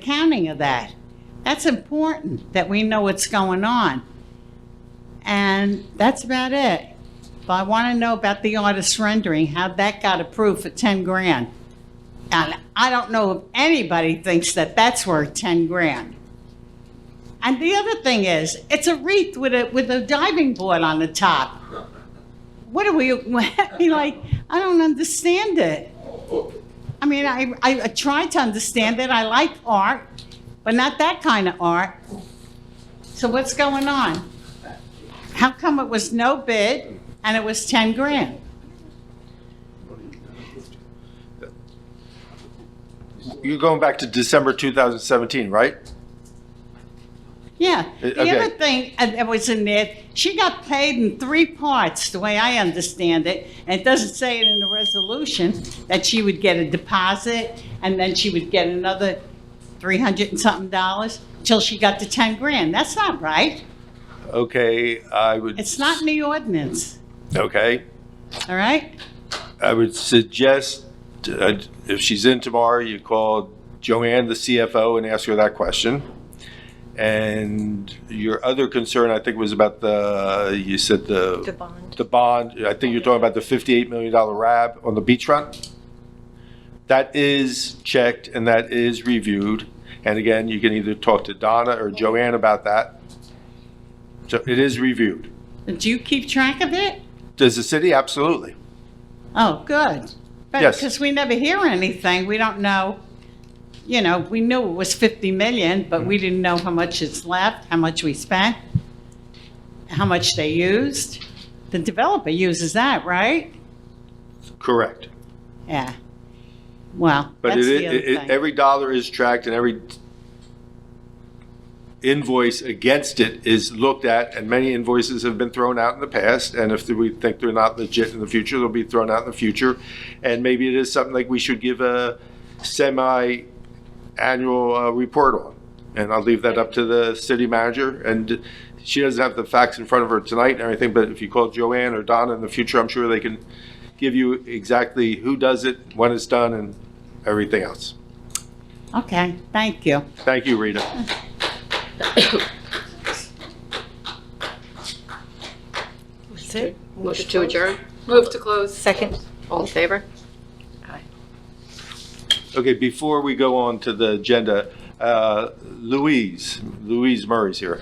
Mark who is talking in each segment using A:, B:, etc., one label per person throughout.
A: accounting of that. That's important, that we know what's going on. And that's about it. But I want to know about the artist rendering, how that got approved for 10 grand. And I don't know if anybody thinks that that's worth 10 grand. And the other thing is, it's a wreath with a, with a diving board on the top. What are we, I mean, like, I don't understand it. I mean, I, I try to understand it. I like art, but not that kind of art. So what's going on? How come it was no bid and it was 10 grand?
B: You're going back to December 2017, right?
A: Yeah.
B: Uh,
A: The other
B: okay.
A: thing uh, that was in there, she got paid in three parts, the way I understand it. And it doesn't say it in the resolution, that she would get a deposit and then she would get another 300 and something dollars till she got to 10 grand. That's not right.
B: Okay, I would.
A: It's not in the ordinance,
B: Okay,
A: all right?
B: I would suggest, uh, if she's in tomorrow, you call Joanne, the CFO, and ask her that question. And your other concern, I think, was about the, you said
C: The
B: the,
C: bond.
B: the bond. I think you're talking about the $58 million RAB on the beachfront. That is checked and that is reviewed. And again, you can either talk to Donna or Joanne about that. So it is reviewed.
A: Do you keep track of it?
B: Does the city? Absolutely.
A: Oh, good.
B: Yes.
A: Because we never hear anything, we don't know, you know, we knew it was 50 million, but
B: Mm-hmm.
A: we didn't know how much is left, how much we spent, how much they used. The developer uses that, right?
B: Correct.
A: Yeah. Well,
B: But
A: that's
B: it,
A: the
B: it,
A: other
B: it,
A: thing.
B: every dollar is tracked and every invoice against it is looked at and many invoices have been thrown out in the past. And if we think they're not legit in the future, they'll be thrown out in the future. And maybe it is something like we should give a semi-annual uh, report on. And I'll leave that up to the city manager. And she doesn't have the facts in front of her tonight and everything, but if you call Joanne or Donna in the future, I'm sure they can give you exactly who does it, when it's done, and everything else.
A: Okay, thank you.
B: Thank you, Rita.
C: That's it.
D: Motion to adjourn. Move to close.
C: Second.
D: All in favor?
B: Okay, before we go on to the agenda, uh, Louise, Louise Murray's here.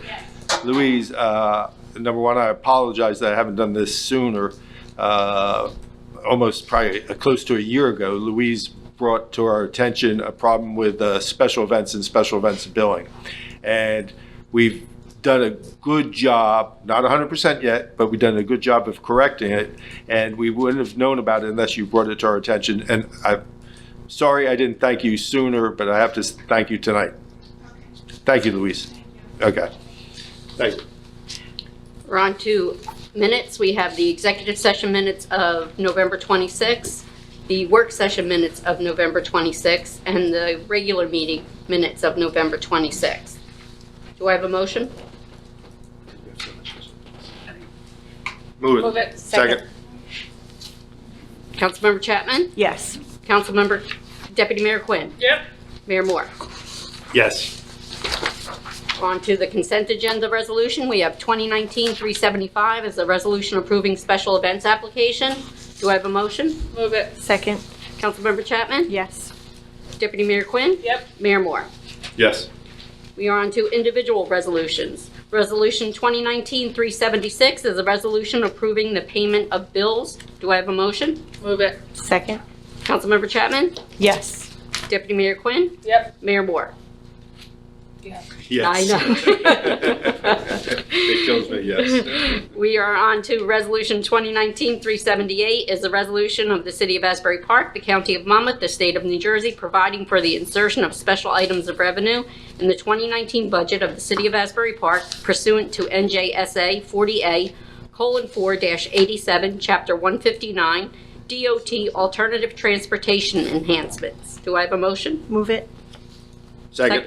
B: Louise, uh, number one, I apologize that I haven't done this sooner. Uh, Almost probably uh, close to a year ago, Louise brought to our attention a problem with uh, special events and special events billing. And we've done a good job, not 100% yet, but we've done a good job of correcting it. And we wouldn't have known about it unless you brought it to our attention. And I Sorry I didn't thank you sooner, but I have to s- thank you tonight. Thank you, Luis. Okay. Thank you.
D: We're on to minutes. We have the executive session minutes of November 26, the work session minutes of November 26, and the regular meeting minutes of November 26. Do I have a motion?
B: Move it. Second.
D: Councilmember Chapman?
C: Yes.
D: Councilmember Deputy Mayor Quinn? Yep. Mayor Moore?
B: Yes.
D: On to the consent agenda resolution. We have 2019-375 as a resolution approving special events application. Do I have a motion? Move it.
C: Second.
D: Councilmember Chapman?
C: Yes.
D: Deputy Mayor Quinn? Yep. Mayor Moore?
B: Yes.
D: We are on to individual resolutions. Resolution 2019-376 is a resolution approving the payment of bills. Do I have a motion? Move it.
C: Second.
D: Councilmember Chapman?
C: Yes.
D: Deputy Mayor Quinn? Yep. Mayor Moore? I
B: Yes.
D: know.
B: It kills me, yes.
D: We are on to Resolution 2019-378 is a resolution of the City of Asbury Park, the County of Monmouth, the State of New Jersey, providing for the insertion of special items of revenue in the 2019 budget of the City of Asbury Park pursuant to NJSA 40A:4-87, Chapter 159, DOT Alternative Transportation Enhancements. Do I have a motion?
C: Move it.
B: Second.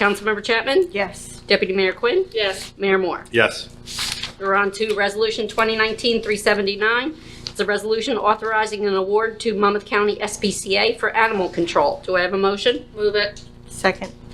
D: Councilmember Chapman?
C: Yes.
D: Deputy Mayor Quinn? Yes. Mayor Moore?
B: Yes.
D: We're on to Resolution 2019-379. It's a resolution authorizing an award to Monmouth County SPCA for animal control. Do I have a motion? Move it.
C: Second.